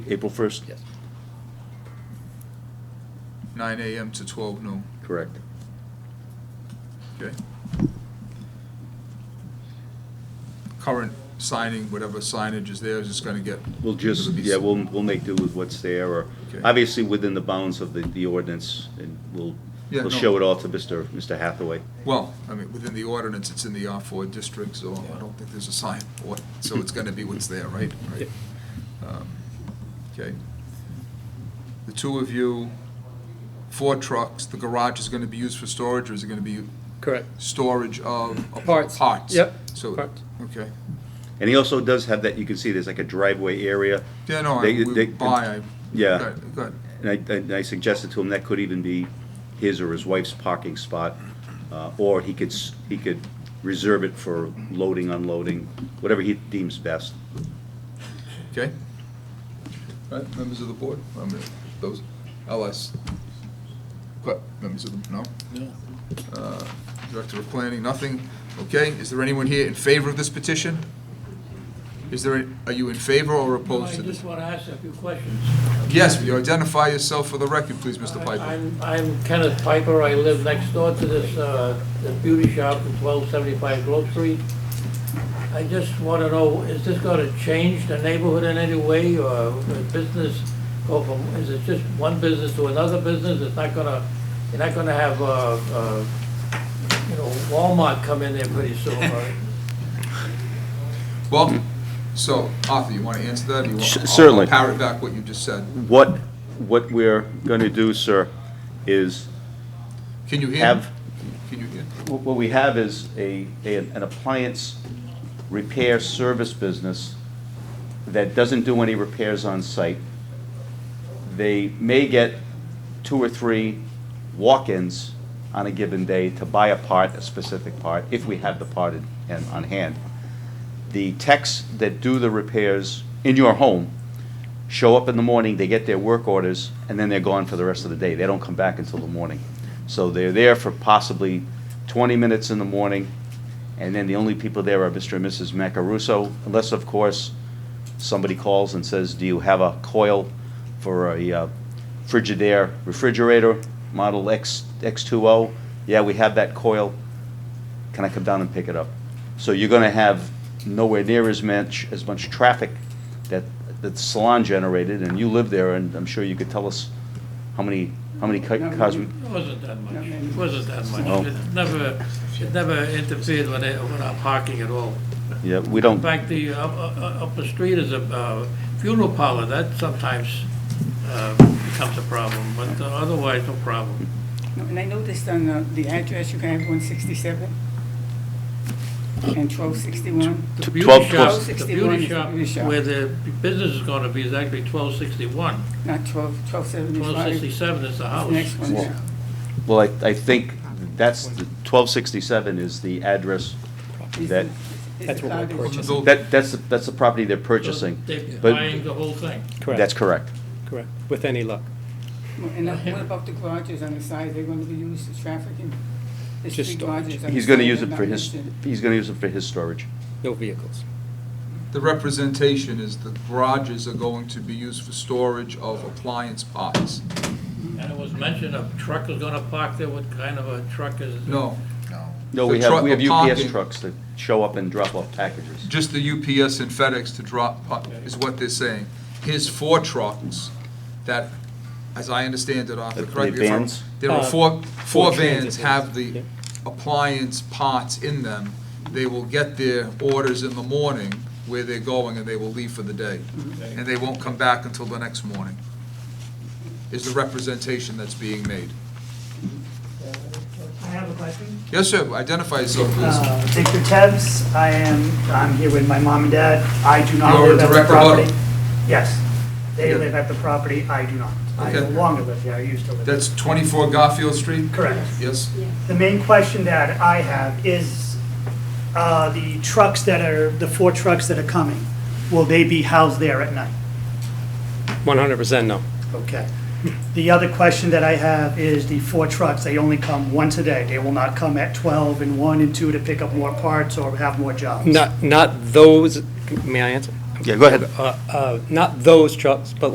April 1st? Yes. 9 AM to 12 noon, Correct. okay? Current signing, whatever signage is there, is just gonna get, We'll just, It'll be yeah, s- we'll, we'll make do with what's there, or, Okay. obviously, within the bounds of the, the ordinance, and we'll, Yeah, we'll no. show it all to Mr. Mr. Hathaway. well, I mean, within the ordinance, it's in the R4 district, so I don't think there's a sign for it, so it's gonna be what's there, right? Right. Um, Okay. The two of you, four trucks, the garage is gonna be used for storage, or is it gonna be Correct. storage of? of Parts. Parts? Yep, So, parts. okay. And he also does have that, you can see, there's like a driveway area, Yeah, no, I, They- we they- buy, I. Yeah. Good, Good, and I, and I suggested to him that could even be his or his wife's parking spot, uh, or he could, s- he could reserve it for loading, unloading, whatever he deems best. Okay. All right, members of the board, I mean, those, LS, what, members of the, no? Uh, Director of Planning, nothing, okay, is there anyone here in favor of this petition? Is there, a- are you in favor or opposed I to this? just want to ask a few questions. Yes, will you identify yourself for the record, please, Mr. I- Piper? I'm- I'm Kenneth Piper, I live next door to this uh, this beauty shop at 1275 Grove Street. I just want to know, is this going to change the neighborhood in any way, or will business go from, is it just one business to another business? It's not going to, you're not going to have, uh, uh, you know, Walmart come in there pretty soon, right? Well, so, Arthur, you want to answer that? or you want- Sh- I'll- certainly. I'll parrot back what you just said. What, what we're gonna do, sir, is Can you hear? me? have Can you hear? Wh- What we have is a, a- an appliance repair service business that doesn't do any repairs on site. They may get two or three walk-ins on a given day to buy a part, a specific part, if we have the part in- in- on hand. The techs that do the repairs in your home show up in the morning, they get their work orders, and then they're gone for the rest of the day. They don't come back until the morning. So they're there for possibly 20 minutes in the morning, and then the only people there are Mr. and Mrs. Macaruso, unless, of course, somebody calls and says, do you have a coil for a uh, Frigidaire refrigerator, model X, X2O? Yeah, we have that coil. Can I come down and pick it up? So you're gonna have nowhere near as much, as much traffic that, that the salon generated, and you live there, and I'm sure you could tell us how many, how many ca- cars we, It wasn't that much, it wasn't that No. much. It never, it never interfered with it- with our parking at all. yeah, we don't. In fact, the, uh, uh, up the street is a uh, funeral parlor, that sometimes uh, becomes a problem, but uh, otherwise, no problem. No, And I noticed on the- the address, you can have 167 and 1261. The beauty 12 shop- The 1261 beauty is the beauty shop shop. where the business is going to be is actually 1261. Not 12, 1275. 1267 is the house. Next one Well, down. Well, I, I think that's, the 1267 is the address Is that, the- is That's the what we cottage. purchased. Build- that, that's, the- that's the property they're So purchasing. They're but- buying the whole thing. That's correct. Correct, with any luck. And now, what about the garages on the side? They're going to be used for trafficking? There's Just three storage. garages on the He's gonna side use that it are for not his, listed. he's gonna use it for his storage. No vehicles. The representation is the garages are going to be used for storage of appliance parts. And it was mentioned a truck is going to park there, what kind of a truck is? No, No, The we truck have, we have will UPS parking. trucks that show up and drop off packages. just the UPS and FedEx to drop, pa- is what they're saying. His four trucks that, as I understand it, Arthur, The- the correct me if I'm- vans? There are Uh, four, four four transit vans vans, have the yeah. appliance parts in them. They will get their orders in the morning where they're going and they will leave for the day. Mm-hmm. And they won't come back until the next morning, is the representation that's being made. I have a question. Yes, sir, identify yourself, please. Uh, Victor Tebs, I am, I'm here with my mom and dad. I do not You're live at the direct property. abut. Yes, they Yeah. live at the property, I do not. I no Okay. longer live there, I used to live there. That's 24 Garfield Street? Correct. Yes? The main question that I have is, uh, the trucks that are, the four trucks that are coming, will they be housed there at night? One hundred percent no. Okay. The other question that I have is the four trucks, they only come once a day. They will not come at 12 and 1 and 2 to pick up more parts or have more jobs. Not, not those, may I answer? Yeah, go ahead. Uh, uh, Not those trucks, but